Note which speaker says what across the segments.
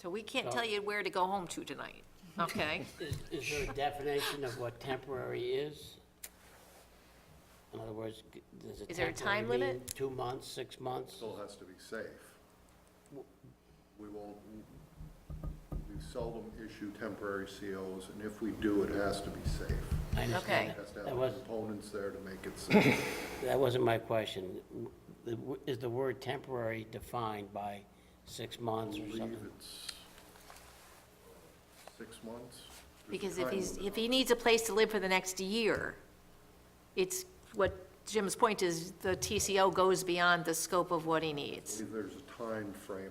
Speaker 1: So we can't tell you where to go home to tonight, okay?
Speaker 2: Is, is there a definition of what temporary is? In other words, g- does a
Speaker 1: Is there a time
Speaker 2: temporary
Speaker 1: limit?
Speaker 2: mean Two months, six months?
Speaker 3: still has to be safe. We won't, we seldom issue temporary COs, and if we do, it has to be safe.
Speaker 2: I understand
Speaker 1: Okay.
Speaker 2: that.
Speaker 3: Has to
Speaker 2: That
Speaker 3: have
Speaker 2: was,
Speaker 3: components there to make it safe.
Speaker 2: that wasn't my question. The w- Is the word temporary defined by six months or
Speaker 3: believe
Speaker 2: something?
Speaker 3: it's six months. There's a
Speaker 1: Because if
Speaker 3: time
Speaker 1: he's,
Speaker 3: limit
Speaker 1: if
Speaker 3: on
Speaker 1: he
Speaker 3: it.
Speaker 1: needs a place to live for the next year, it's, what Jim's point is, the TCO goes beyond the scope of what he
Speaker 3: I
Speaker 1: needs.
Speaker 3: believe There's a time frame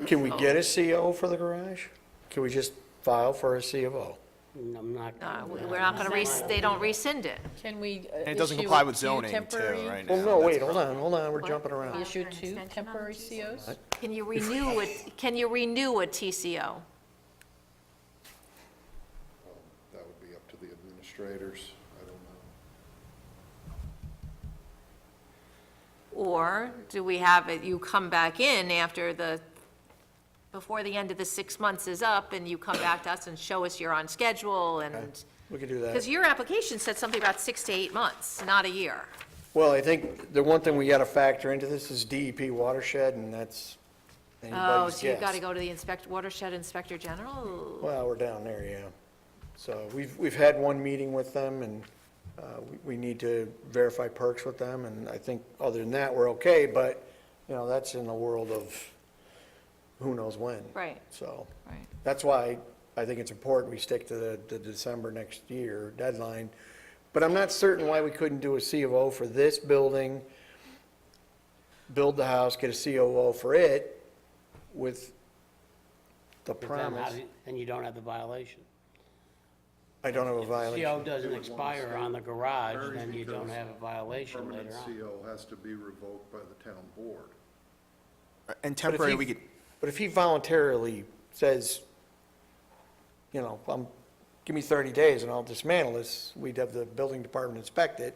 Speaker 3: on
Speaker 4: Can we get a CO for the garage? Can we just file for a CO?
Speaker 2: I'm not.
Speaker 1: Uh, we- We're not gonna, rec- they don't rescind it.
Speaker 5: Can we? uh,
Speaker 6: And it doesn't comply with zoning too, right now.
Speaker 4: Well, no,
Speaker 6: That's
Speaker 4: wait, hold on, hold on, we're jumping around.
Speaker 5: Issue
Speaker 1: After an
Speaker 5: two
Speaker 1: extension on
Speaker 5: temporary
Speaker 1: the
Speaker 5: COs?
Speaker 1: Can you renew it, can you renew a TCO?
Speaker 3: it. That would be up to the administrators. I don't know.
Speaker 1: Or do we have it, you come back in after the, before the end of the six months is up, and you come back to us and show us you're on schedule, and,
Speaker 4: We could do
Speaker 1: because
Speaker 4: that.
Speaker 1: your application said something about six to eight months, not a year.
Speaker 4: Well, I think the one thing we gotta factor into this is DEP watershed, and that's
Speaker 1: Oh,
Speaker 4: anybody's guess.
Speaker 1: so you've got to go to the inspect, watershed inspector general?
Speaker 4: Well, we're down there, yeah. So we've, we've had one meeting with them, and uh, we- we need to verify perks with them, and I think, other than that, we're okay, but, you know, that's in the world of who knows when.
Speaker 1: Right.
Speaker 4: So.
Speaker 1: Right.
Speaker 4: That's why I think it's important we stick to the, the December next year deadline. But I'm not certain why we couldn't do a C of O for this building, build the house, get a C of O for it with the
Speaker 2: But then how
Speaker 4: promise.
Speaker 2: do- Then you don't have the violation.
Speaker 4: I don't have a
Speaker 2: CO
Speaker 4: violation.
Speaker 2: doesn't
Speaker 3: It would want to
Speaker 2: expire
Speaker 3: stay-
Speaker 2: on the garage,
Speaker 3: Varies
Speaker 2: then you don't
Speaker 3: because
Speaker 2: have a violation
Speaker 3: Permanent
Speaker 2: later on.
Speaker 3: CO has to be revoked by the town board.
Speaker 6: right. And
Speaker 4: But if
Speaker 6: temporary,
Speaker 4: he-
Speaker 6: we could,
Speaker 4: But if he voluntarily says, you know, um, give me thirty days and I'll dismantle this, we'd have the building department inspect it.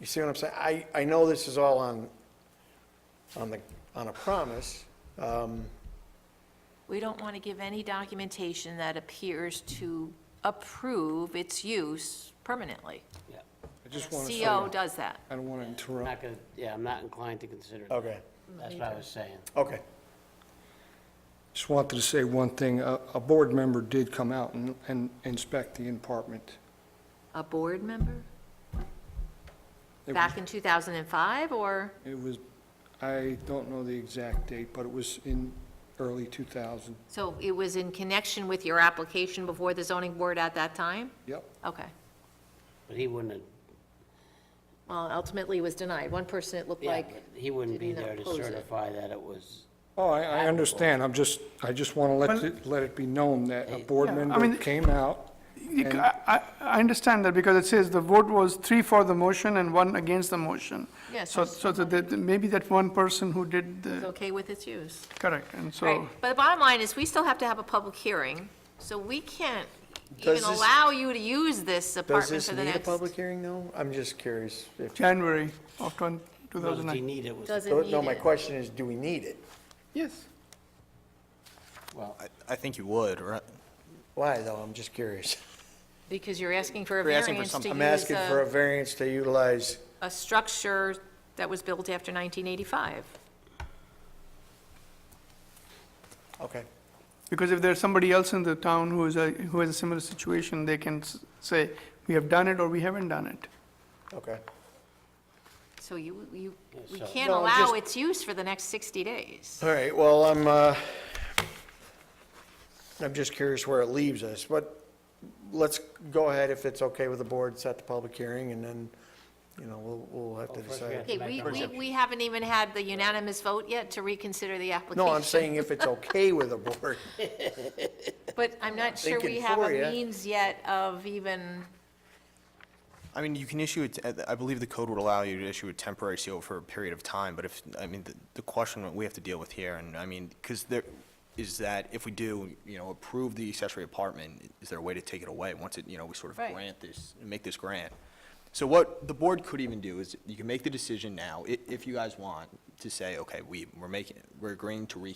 Speaker 4: You see what I'm saying? I, I know this is all on, on the, on a promise. Um,
Speaker 1: We don't want to give any documentation that appears to approve its use permanently.
Speaker 2: Yeah.
Speaker 4: I just want to
Speaker 1: CO does that.
Speaker 4: I don't want to
Speaker 2: I'm
Speaker 4: interrupt.
Speaker 2: not gonna, yeah, I'm not inclined to consider that.
Speaker 4: Okay,
Speaker 2: That's what I was saying.
Speaker 4: okay.
Speaker 7: Just wanted to say one thing. A, a board member did come out and, and inspect the apartment.
Speaker 1: A board member?
Speaker 7: It was-
Speaker 1: Back in 2005, or?
Speaker 7: It was, I don't know the exact date, but it was in early 2000.
Speaker 1: So it was in connection with your application before the zoning board at that time?
Speaker 7: Yep.
Speaker 1: Okay.
Speaker 2: But he wouldn't, have-
Speaker 1: Well, ultimately it was denied. One person, it looked
Speaker 2: yeah,
Speaker 1: like,
Speaker 2: but he wouldn't be
Speaker 1: did he not
Speaker 2: there to
Speaker 1: oppose it?
Speaker 2: certify that it was,
Speaker 7: Oh, I, I understand. I'm just, I just want to let, it- let it be known that a board member
Speaker 8: mean-
Speaker 7: came out.
Speaker 8: You ca- I, I I understand that because it says the vote was three for the motion and one against the motion.
Speaker 1: Yes,
Speaker 8: So,
Speaker 1: that's
Speaker 8: so that, that- maybe that one person who did
Speaker 1: it's
Speaker 8: the,
Speaker 1: okay with its use.
Speaker 8: correct, and so.
Speaker 1: Right, but the bottom line is, we still have to have a public hearing, so we can't even
Speaker 4: Does this-
Speaker 1: allow you to use this
Speaker 4: Does
Speaker 1: apartment
Speaker 4: this
Speaker 1: for the
Speaker 4: need a
Speaker 1: next.
Speaker 4: public hearing though? I'm just curious if,
Speaker 8: January of 20-
Speaker 2: no, that he
Speaker 8: 2009.
Speaker 2: needed was,
Speaker 1: Does it need
Speaker 4: no, my
Speaker 1: it?
Speaker 4: question is, do we need it?
Speaker 8: Yes,
Speaker 2: well,
Speaker 6: I- I think you would, right?
Speaker 4: Why though? I'm just curious.
Speaker 1: Because you're asking for a
Speaker 6: You're asking for
Speaker 1: variance to
Speaker 6: something.
Speaker 4: I'm
Speaker 1: use
Speaker 4: asking for a
Speaker 1: a,
Speaker 4: variance to utilize,
Speaker 1: a structure that was built after 1985.
Speaker 4: okay.
Speaker 8: because if there's somebody else in the town who is a, who has a similar situation, they can s- say, we have done it or we haven't done it.
Speaker 4: Okay.
Speaker 1: So you, you, we
Speaker 2: so-
Speaker 1: can't
Speaker 4: No,
Speaker 1: allow
Speaker 4: just-
Speaker 1: its use for the next 60 days.
Speaker 4: All right, well, I'm, uh, I'm just curious where it leaves us, but let's go ahead if it's okay with the board, set the public hearing, and then, you know, we'll, we'll have to
Speaker 2: first we have
Speaker 4: decide.
Speaker 1: Okay, we, we, we haven't even had the unanimous vote yet to reconsider the application.
Speaker 4: No, I'm saying if it's okay with the board.
Speaker 1: But I'm not sure we
Speaker 4: thinking
Speaker 1: have
Speaker 4: for ya.
Speaker 1: a means yet of even,
Speaker 6: I mean, you can issue, it. I believe the code would allow you to issue a temporary CO for a period of time, but if, I mean, the- the question that we have to deal with here, and I mean, because there, is that if we do, you know, approve the accessory apartment, is there a way to take it away once it, you know, we sort of
Speaker 1: Right.
Speaker 6: grant this, make this grant? So what the board could even do is, you can make the decision now, i- if you guys want, to say, okay, we, we're making, we're agreeing to re,